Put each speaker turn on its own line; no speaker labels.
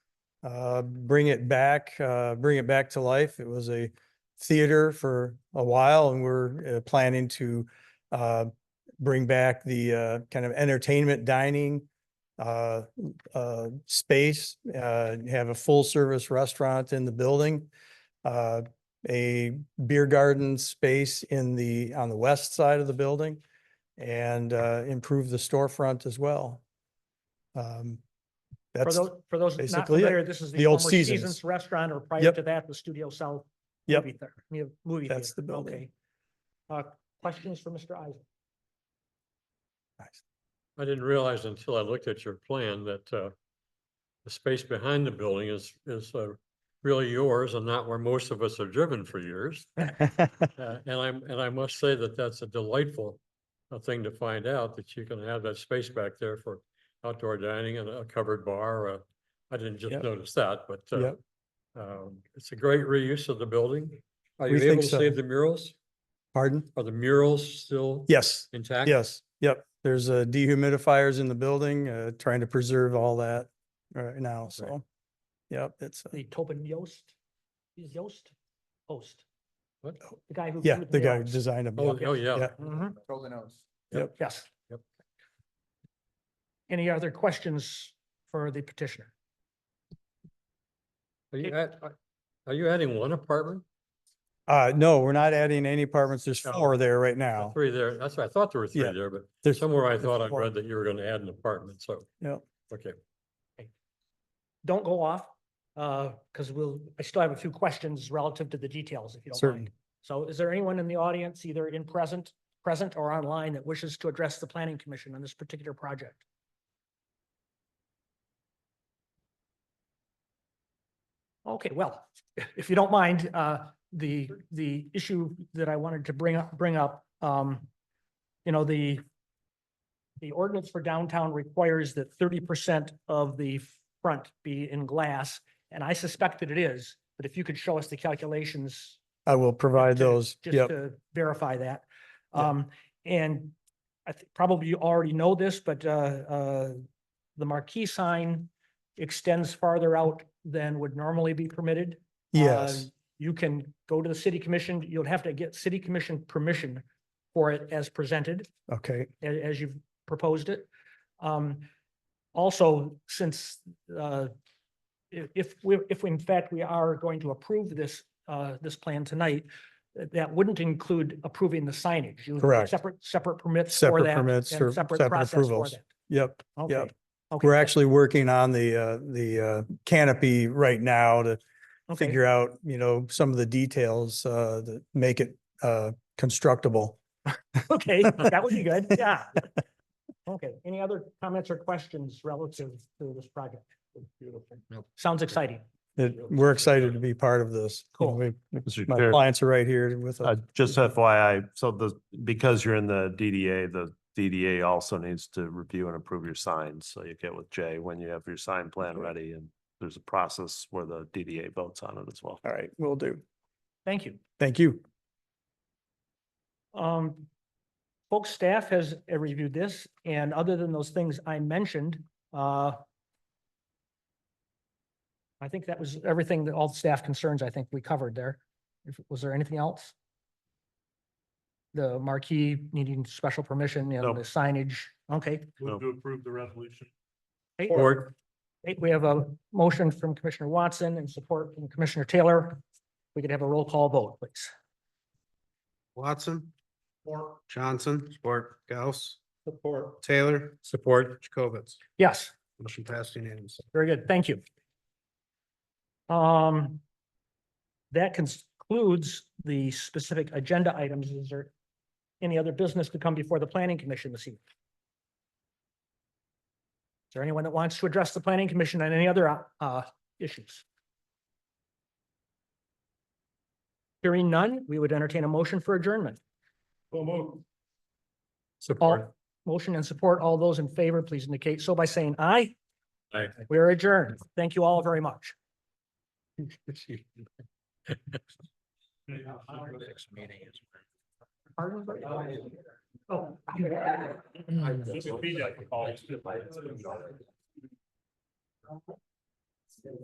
uh, bring it back, uh, bring it back to life. It was a theater for a while and we're uh, planning to uh, bring back the uh, kind of entertainment dining uh, uh, space, uh, have a full service restaurant in the building, uh, a beer garden space in the, on the west side of the building and uh, improve the storefront as well. Um,
For
That's,
those, for those not
basically it.
familiar, this is the
The old
former
Seasons.
Seasons Restaurant, or prior
Yep.
to that, the Studio South.
Yep.
movie theater- mu- Movie.
That's the
theater.
building.
Okay. Uh, questions for Mr. Eisen?
I didn't realize until I looked at your plan that uh, the space behind the building is, is uh, really yours and not where most of us have driven for years. Uh, And I'm, and I must say that that's a delightful uh, thing to find out, that you can have that space back there for outdoor dining and a covered bar. uh, I didn't just
Yep.
notice that, but uh,
Yep.
um, it's a great reuse of the building. Are
We
you
think
able to
so.
save the murals?
pardon?
Are the murals still
Yes,
intact?
yes, yep. There's uh, dehumidifiers in the building, uh, trying to preserve all that right now, so. Yep, it's, uh,
The Tobin Yost? Is Yost? Host, Oh.
What?
the guy who.
yeah,
drew
the guy who
Oaks.
designed them.
Oh, oh, yeah.
Yeah.
Mhm, Yes.
Yep.
Any other questions for the petitioner?
Are
It-
you at, are- are you adding one apartment?
Uh, no, we're not adding any apartments. There's
No.
four there right
There are
now.
Three there, that's what I thought there were three
Yeah.
there, but
There's,
somewhere I thought I
four.
read that you were gonna add an apartment, so,
yeah,
okay.
Don't go off, uh, because we'll, I still have a few questions relative to the details, if you don't mind.
certain.
So is there anyone in the audience, either in present, present or online, that wishes to address the planning commission on this particular project? Okay, well, if you don't mind, uh, the, the issue that I wanted to bring up, bring up, um, you know, the the ordinance for downtown requires that thirty percent of the front be in glass, and I suspect that it is, but if you could show us the calculations
I will provide
to-
those.
just
Yep,
to verify that.
Yep.
Um, and I think probably you already know this, but, uh, uh, the marquee sign extends farther out than would normally be permitted. Uh,
yes,
You can go to the city commission, you'll have to get city commission permission for it as presented
okay,
a- as you've proposed it. Um, also, since, uh, i- if, we, if we- in fact we are going to approve this, uh, this plan tonight, th- that wouldn't include approving the signage. You would have
Correct.
Separate, separate permits for
Separate
that.
permits
and
or
Separate
separate
process for
approvals.
that.
yep.
Okay. Okay,
We're
that-
actually working on the, uh, the, uh, canopy right now to
okay.
figure out, you know, some of the details, uh, that make it, uh, constructible.
Okay, that would be good, yeah. Okay, any other comments or questions relative to this project? Beautiful.
Nope.
Sounds exciting.
It, we're excited to be part of this. You know,
Cool.
we- we-
Mr.
My
Chair,
clients are right here with
uh,
us.
just FYI, so the, because you're in the DDA, the DDA also needs to review and approve your signs. So you get with Jay when you have your sign plan ready and there's a process where the DDA votes on it as well.
All right, we will do.
Thank you.
Thank you.
Um, folks, staff has uh, reviewed this, and other than those things I mentioned, uh, I think that was everything that all the staff concerns I think we covered there. If, was there anything else? The marquee needing special permission and
Nope.
the signage, okay.
Move
to approve the resolution.
Or,
we have a motion from Commissioner Watson and support from Commissioner Taylor. We could have a roll call vote, please.
Watson. Support. Johnson. Support. Gauss. Support. Taylor.
support,
Jacobitz.
Yes.
Motion passed unanimously.
Very good, thank you. Um, that concludes the specific agenda items. Is there any other business to come before the planning commission this evening? Is there anyone that wants to address the planning commission on any other, uh, issues? Hearing none, we would entertain a motion for adjournment.
support.
All, motion and support, all those in favor, please indicate so by saying aye.
Aye.
We are adjourned. Thank you all very much. Pardon? Oh.